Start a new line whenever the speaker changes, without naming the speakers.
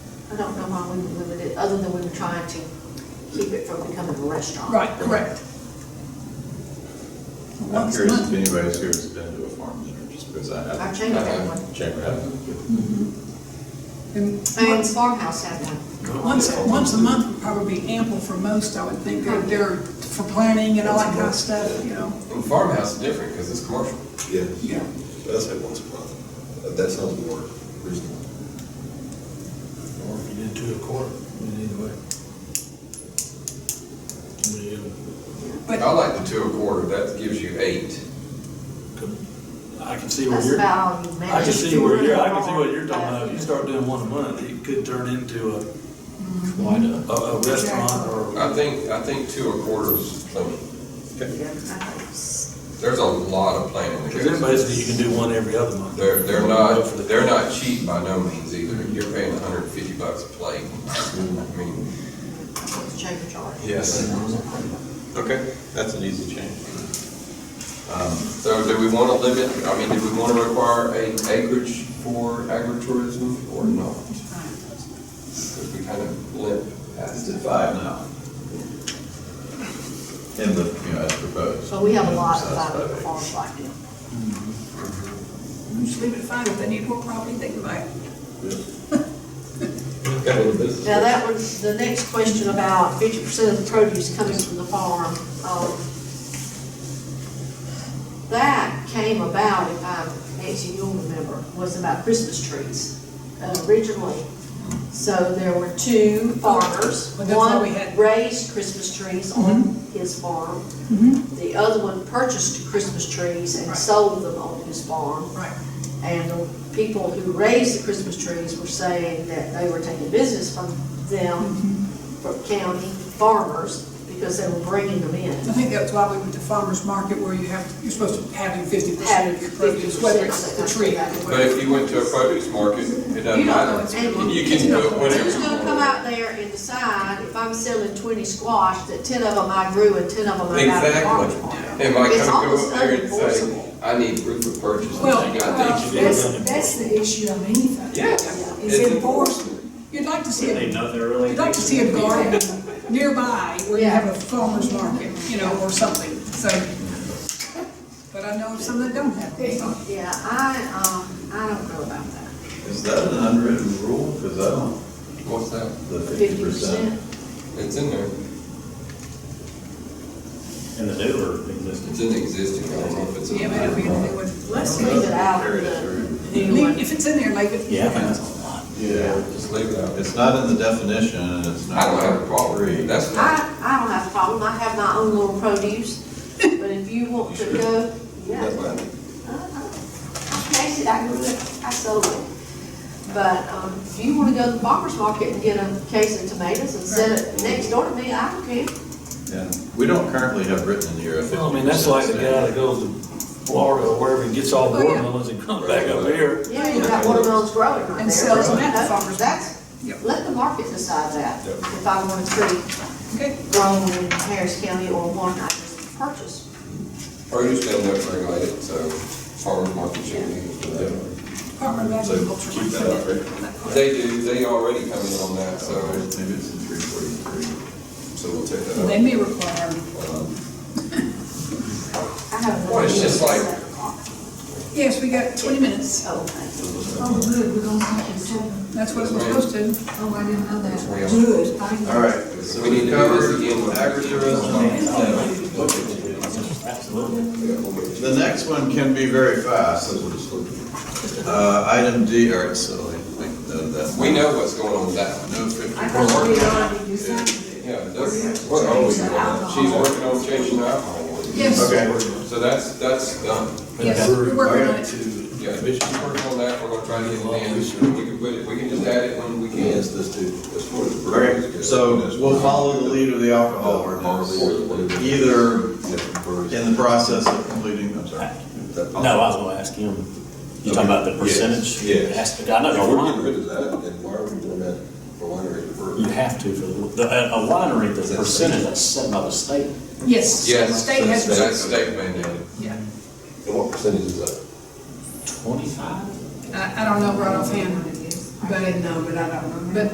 I don't know why we would limit it, other than we were trying to keep it from becoming a restaurant.
Right, correct.
I'm
Once a
curious if
month.
anybody's here has been to a farm dinner, just because I haven't.
I've changed that one.
Chamber hasn't.
And
And
once-
farmhouse had one.
Once, once a month would probably be ample for most, I would think, they're, they're for planning and all that kind of stuff, you know?
And farmhouse is different because it's commercial.
Yeah,
Yeah.
but I say once a month. Uh, That sounds more reasonable.
Or if you did two a quarter, but anyway. Yeah,
I
But,
like the two a quarter, that gives you eight.
come- I can see where
That's
you're, I
about all you manage.
can see where you're, I can see what you're talking
Yeah.
about. If you start doing one a month, it could turn into a, quite a, a restaurant or.
I think, I think two a quarters, plenty.
Yeah, I think it's-
there's a lot of planning that
Cause then
goes.
basically you can do one every other month.
They're, they're
Go
not,
for the-
they're not cheap by no means either. You're paying hundred and fifty bucks a plate. I mean,
That's what the chamber charges.
yes.
Okay, that's an easy change.
So do we want to limit, I mean, do we want to require a acreage for agritourism or not? Because we kind of limp
It's
past
at
it.
five now. In the, you know, as proposed.
So we have a lot of
Size
five-acre
acres.
farms like that.
just leave it fine, if they need more property, they can buy it.
Got a little business.
Now, that was, the next question about fifty percent of the produce coming from the farm, um, that came about, if I, Nancy, you'll remember, was about Christmas trees uh, originally. So there were two farmers,
Well, that's why
one
we had-
raised Christmas trees on his farm. The other one purchased Christmas trees and
Right.
sold them on his farm.
Right.
And the people who raised the Christmas trees were saying that they were taking business from them, from county farmers, because they were bringing them
I
in.
think that's why we went to farmer's market where you have, you're supposed to have fifty percent of your produce, whether it's the tree.
But if you went to a produce market, it
You
doesn't
don't know
matter.
what's
And-
You can do it whenever
Who's
you
gonna
want.
come out there and decide, if I'm selling twenty squash, that ten of them I grew and ten of them I got at the farmer's market?
Exactly. Am I
It's
gonna go
almost
up there and say,
unenforceable.
I need proof of purchase,
Well,
and you
well,
got these?
That's, that's the issue on anything.
Yes.
It's enforcement.
You'd like to see
They
it,
know they're really.
you'd like to see a garden nearby where you
Yeah.
have a farmer's market, you know, or something, so. But I know some that don't have it, so.
Yeah, I, um, I don't know about that.
Is that an unwritten rule? Cause I don't,
What's that?
the
Fifty percent,
It's in there.
In the new or
It's
existing.
in the existing. I don't know if it's in
Yeah,
the
but
new.
if you do it.
let's leave it out of the new
Leave-
one.
If it's in there, leave it.
Yeah, I think that's a
Oh,
lot.
Yeah.
Just leave it out.
It's not in the definition and it's not.
I don't have a problem. That's
I,
fine.
I don't have a problem, I have my own little produce, but if you want to go, yeah.
That's fine.
I- I- I actually, I grew it, I sold it. But, um, if you wanna go to the farmer's market and get a case of tomatoes and set it next door to me, I don't care.
Yeah, we don't currently have written in here a fifty
Well, I mean, that's like the guy that goes to Florida or wherever and gets all
Oh, yeah.
watermelons and comes back up here.
Yeah, you got watermelons growing right there.
And sells them at the
That's-
farmer's
That's,
Yep.
let the market decide that, if I want a tree
Okay.
grown in Harris County or one I just purchased.
Produce doesn't have to regulate it, so farmers market should be. used for that.
Department of Agriculture.
Keep that up, right?
They do, they already come in on that,
So
so.
maybe it's in three forty-three.
So we'll take that Um,
They may require,
I have another.
Well, it's
one
just
that's
like-
seven o'clock.
yes, we got twenty minutes,
Oh, okay.
Oh, good, we're gonna have to seven.
that's what it was supposed to.
Oh, I didn't know that.
Well.
Good, thank you.
All right, so
We need
we
to do this
covered
again with
agritourism.
Absolutely.
The next one can be very fast. Uh, item D, all right, so I think that, that.
We know what's going on with that one.
No fifty
I thought we
percent.
already decided.
Yeah, that's, what are we doing? She's working on changing the alcohol. ordinance.
Yes,
Okay,
So that's, that's done.
yes, we're working on it.
Yeah, she's working on that, we're gonna try to get it in, we can put it, we can just add it when we can.
Yes, this too.
As far as the breweries
okay,
go.
so we'll follow the lead of the alcohol ordinance, either
Yeah.
in the process of completing, I'm sorry.
that-
No, I was gonna ask him, you talking about the percentage?
Yes.
Aspect, I know
If
the
we're getting rid
winery,
of that, then why are we doing that for winery and brewery?
you have to, for the- the, a a winery, the percentage that's set by the state.
Yes.
Yes,
State has.
that's state mandated.
Yeah,
And what percentage is that?
Twenty-five?
I, I don't know right offhand, but, no, but I don't know. But